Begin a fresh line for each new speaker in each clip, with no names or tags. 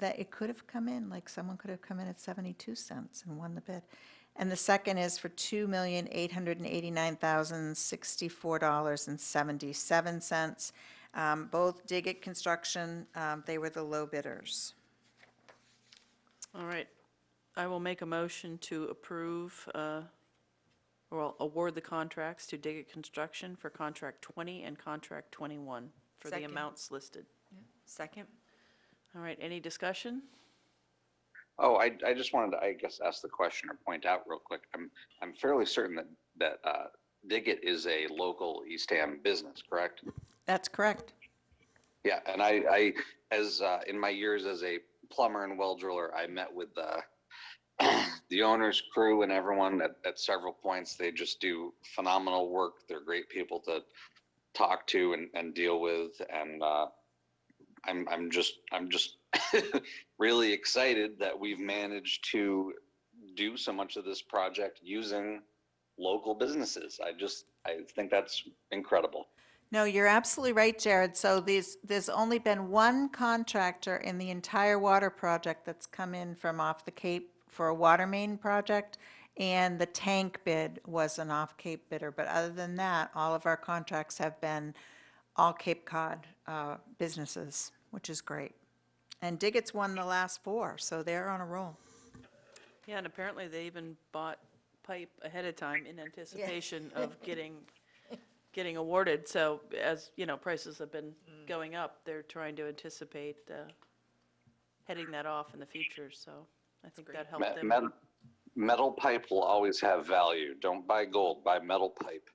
that it could have come in, like someone could have come in at 72 cents and won the bid. And the second is for $2,889,064.77. Um, Both Diggett Construction, um, they were the low bidders.
All right. I will make a motion to approve, uh, or award the contracts to Diggett Construction for Contract 20 and Contract 21 for the
Second.
amounts listed.
Second?
All right, any discussion?
Oh, I, I just wanted to, I guess, ask the question or point out real quick. I'm, I'm fairly certain that, that uh, Diggett is a local Eastham business, correct?
That's correct.
Yeah, and I, I, as, uh, in my years as a plumber and well driller, I met with the, the owner's crew and everyone at, at several points. They just do phenomenal work. They're great people to talk to and, and deal with. And, uh, I'm, I'm just, I'm just really excited that we've managed to do so much of this project using local businesses. I just, I think that's incredible.
No, you're absolutely right, Jared. So these, there's only been one contractor in the entire water project that's come in from off the Cape for a water main project, and the tank bid was an off-Cape bidder. But other than that, all of our contracts have been all Cape Cod uh, businesses, which is great. And Diggett's won the last four, so they're on a roll.
Yeah, and apparently they even bought pipe ahead of time in anticipation of getting, getting awarded. So as, you know, prices have been going up, they're trying to anticipate uh, heading that off in the future, so I think that helped
Me-
them.
Metal, metal pipe will always have value. Don't buy gold, buy metal pipe.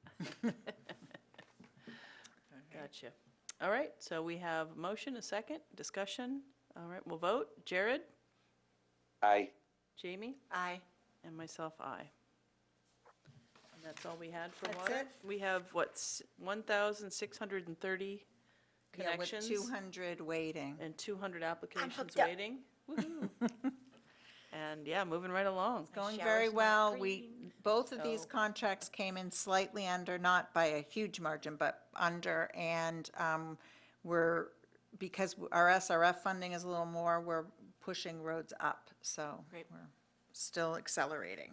Gotcha. All right, so we have a motion, a second, discussion. All right, we'll vote. Jared,
I,
Jamie,
Aye.
and myself, aye. And that's all we had for
That's
water?
it?
We have, what's, 1,630 connections?
Yeah, with 200 waiting.
And 200 applications
up.
waiting. Woohoo. And yeah, moving right along.
Going
shower's
very
not
well. We, both of these
so-
contracts came in slightly under, not by a huge margin, but under. And um, we're, because our SRF funding is a little more, we're pushing roads up. So
Great.
we're still accelerating.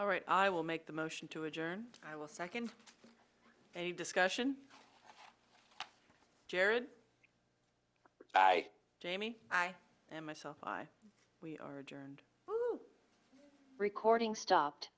All right, I will make the motion to adjourn.
I will second.
Any discussion? Jared,
I.
Jamie,
Aye.
and myself, aye. We are adjourned.
Recording stopped.